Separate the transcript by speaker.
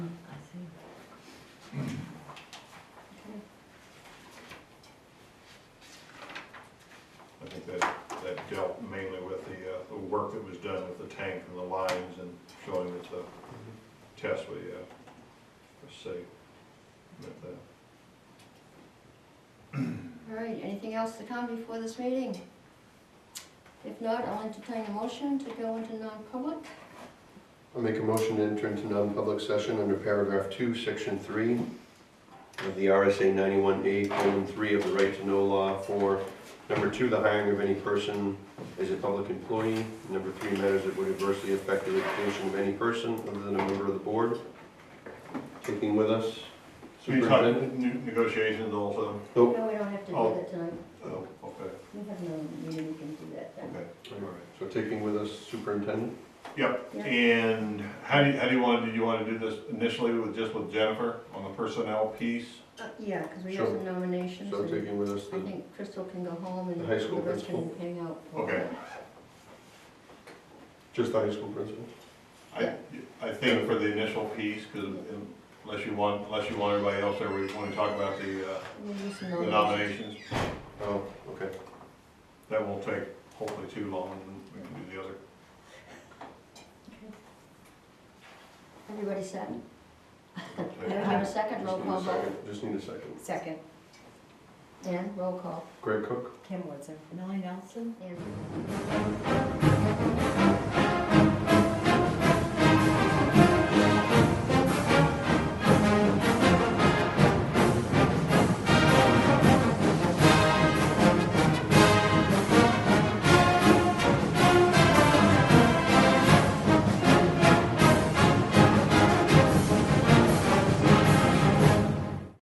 Speaker 1: uh, tank and the lines and showing that the test we, uh, was safe. But, uh,
Speaker 2: All right, anything else to come before this meeting? If not, I'll entertain a motion to go into non-public.
Speaker 3: I'll make a motion to enter into non-public session under paragraph two, section three of the RSA ninety-one A, colon, three of the right to know law for, number two, the hiring of any person as a public employee, number three, matters that would adversely affect the reputation of any person other than a member of the board. Taking with us
Speaker 1: So you talked
Speaker 3: superintendent?
Speaker 1: ne- negotiations also?
Speaker 3: Nope.
Speaker 2: No, we don't have to do
Speaker 1: Oh.
Speaker 2: that tonight.
Speaker 1: Oh, okay,
Speaker 2: We have no meeting, we can do that then.
Speaker 1: okay.
Speaker 3: All right. So taking with us superintendent?
Speaker 1: Yep,
Speaker 2: Yeah.
Speaker 1: and how do you, how do you want, do you want to do this initially with, just with Jennifer on the personnel piece?
Speaker 2: Uh, Yeah, because we have some nominations
Speaker 3: So
Speaker 2: and
Speaker 3: taking with us
Speaker 2: I
Speaker 3: the,
Speaker 2: think Crystal can go home and
Speaker 3: The high school
Speaker 2: the rest can
Speaker 3: principal.
Speaker 2: hang out.
Speaker 1: Okay.
Speaker 3: just the high school principal?
Speaker 1: I, I think for the initial piece, because unless you want, unless you want everybody else, or we want to talk about the, uh,
Speaker 2: We'll do some
Speaker 1: the
Speaker 2: nominations.
Speaker 1: nominations,
Speaker 3: Oh, okay.
Speaker 1: that won't take hopefully too long, and we can do the other.
Speaker 2: Okay. Everybody set? Do we
Speaker 1: Okay.
Speaker 2: have a second
Speaker 3: Just
Speaker 2: roll
Speaker 3: need a
Speaker 2: call vote?
Speaker 3: second. Just need a second.
Speaker 4: Second,
Speaker 2: And roll call.
Speaker 3: Greg Cook?
Speaker 4: Kim Woodson. Millie Nelson.
Speaker 2: And